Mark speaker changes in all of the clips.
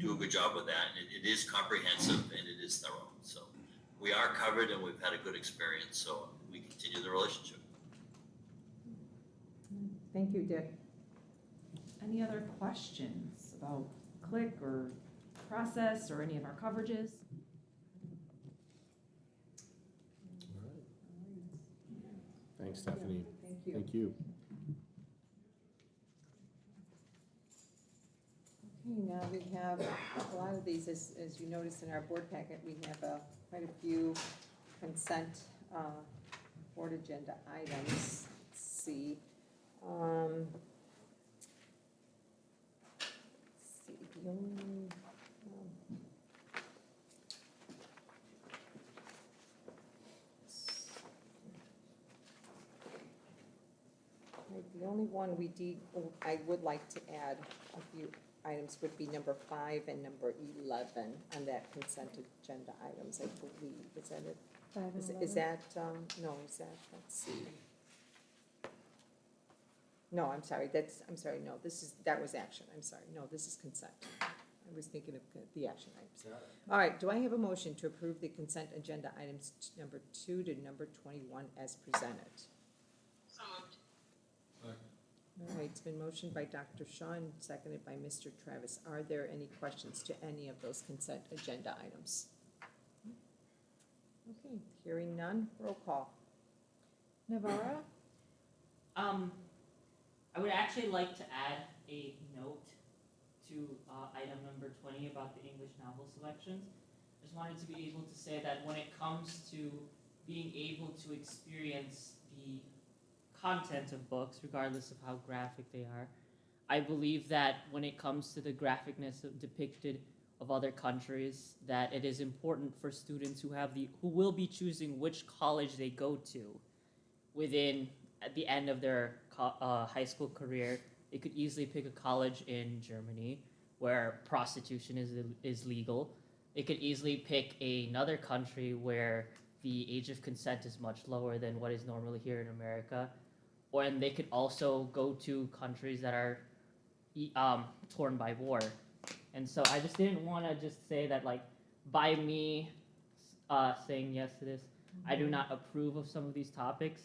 Speaker 1: do a good job with that. And it, it is comprehensive and it is thorough. So we are covered and we've had a good experience. So we continue the relationship.
Speaker 2: Thank you, Dick.
Speaker 3: Any other questions about click or process or any of our coverages?
Speaker 4: Thanks, Stephanie.
Speaker 2: Thank
Speaker 4: Thank you.
Speaker 2: Okay, now we have a lot of these, as, as you notice in our board packet, we have uh, quite a few consent uh, board agenda items. Let's see. um, let's See, the only, um, right, the only one we did, I would like to add a few items would be number five and number eleven on that consent agenda items, I believe, is that it?
Speaker 5: Five
Speaker 2: Is,
Speaker 5: and
Speaker 2: is
Speaker 5: eleven.
Speaker 2: that, um, no, is that, let's see. No, I'm sorry, that's, I'm sorry, no, this is, that was action, I'm sorry, no, this is consent. I was thinking of the action items. All right, do I have a motion to approve the consent agenda items t- number two to number twenty-one as presented?
Speaker 6: So moved.
Speaker 2: All right, it's been motioned by Dr. Shaw and seconded by Mr. Travis. Are there any questions to any of those consent agenda items? Okay, hearing none, roll call.
Speaker 5: Navara,
Speaker 7: Um, I would actually like to add a note to, uh, item number twenty about the English novel selections. Just wanted to be able to say that when it comes to being able to experience the content of books, regardless of how graphic they are, I believe that when it comes to the graphicness of depicted of other countries, that it is important for students who have the, who will be choosing which college they go to within at the end of their co- uh, high school career, they could easily pick a college in Germany where prostitution is is legal. They could easily pick another country where the age of consent is much lower than what is normally here in America, or and they could also go to countries that are e- um, torn by war. And so I just didn't want to just say that like by me uh, saying yes to this, I do not approve of some of these topics.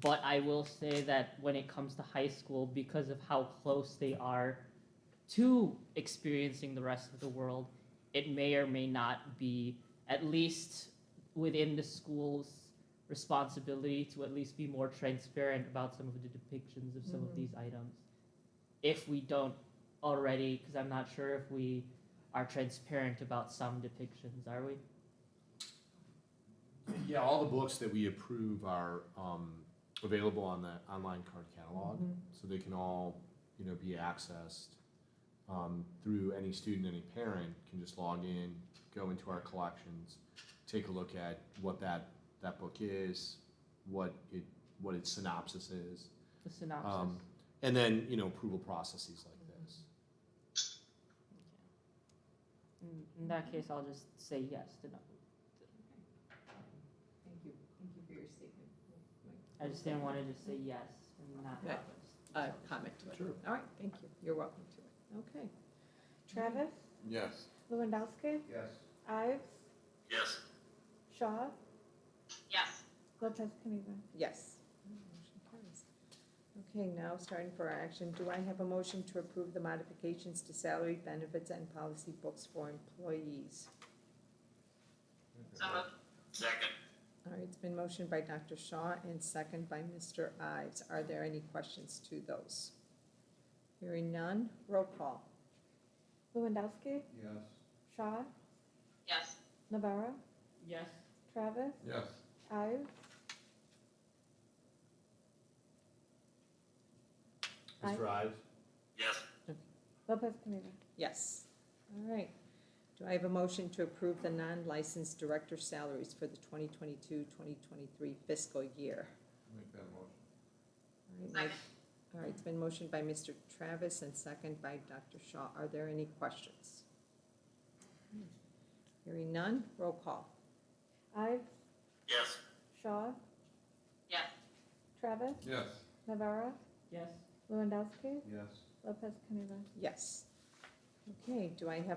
Speaker 7: But I will say that when it comes to high school, because of how close they are to experiencing the rest of the world, it may or may not be, at least within the school's responsibility, to at least be more transparent about some of the depictions of some of these items. If we don't already, because I'm not sure if we are transparent about some depictions, are we?
Speaker 4: Yeah, all the books that we approve are um, available on the online card catalog, so they can all, you know, be accessed um, through any student, any parent can just log in, go into our collections, take a look at what that that book is, what it what its synopsis is,
Speaker 7: The synopsis.
Speaker 4: um, and then you know approval processes like this.
Speaker 7: In, in that case, I'll just say yes to no.
Speaker 2: Thank you, thank you for your statement.
Speaker 7: I just didn't want to just say yes and not
Speaker 2: Okay.
Speaker 7: have
Speaker 2: Uh,
Speaker 7: us.
Speaker 2: comment to it.
Speaker 4: Sure.
Speaker 2: All right, thank you, you're welcome to it, okay.
Speaker 5: Travis,
Speaker 4: Yes.
Speaker 5: Lewandowski,
Speaker 8: Yes.
Speaker 5: Ives,
Speaker 1: Yes.
Speaker 5: Shaw,
Speaker 6: Yes.
Speaker 5: Lopez Caniva.
Speaker 2: Yes. Motion carries. Okay, now starting for our action, do I have a motion to approve the modifications to salary benefits and policy books for employees?
Speaker 6: So moved.
Speaker 1: Second.
Speaker 2: All right, it's been motioned by Dr. Shaw and second by Mr. Ives. Are there any questions to those? Hearing none, roll call.
Speaker 5: Lewandowski,
Speaker 8: Yes.
Speaker 5: Shaw,
Speaker 6: Yes.
Speaker 5: Navara,
Speaker 7: Yes.
Speaker 5: Travis,
Speaker 8: Yes.
Speaker 5: Ives, Aye.
Speaker 8: Mr. Ives?
Speaker 1: Yes.
Speaker 5: Lopez Caniva.
Speaker 2: Yes. All right. Do I have a motion to approve the non-licensed director salaries for the 2022-2023 fiscal year?
Speaker 8: Make that motion.
Speaker 2: All right,
Speaker 6: Second.
Speaker 2: All right, it's been motioned by Mr. Travis and second by Dr. Shaw. Are there any questions? Hearing none, roll call.
Speaker 5: Ives,
Speaker 1: Yes.
Speaker 5: Shaw,
Speaker 6: Yes.
Speaker 5: Travis,
Speaker 8: Yes.
Speaker 5: Navara,
Speaker 7: Yes.
Speaker 5: Lewandowski,
Speaker 8: Yes.
Speaker 5: Lopez Caniva.
Speaker 2: Yes. Okay, do I have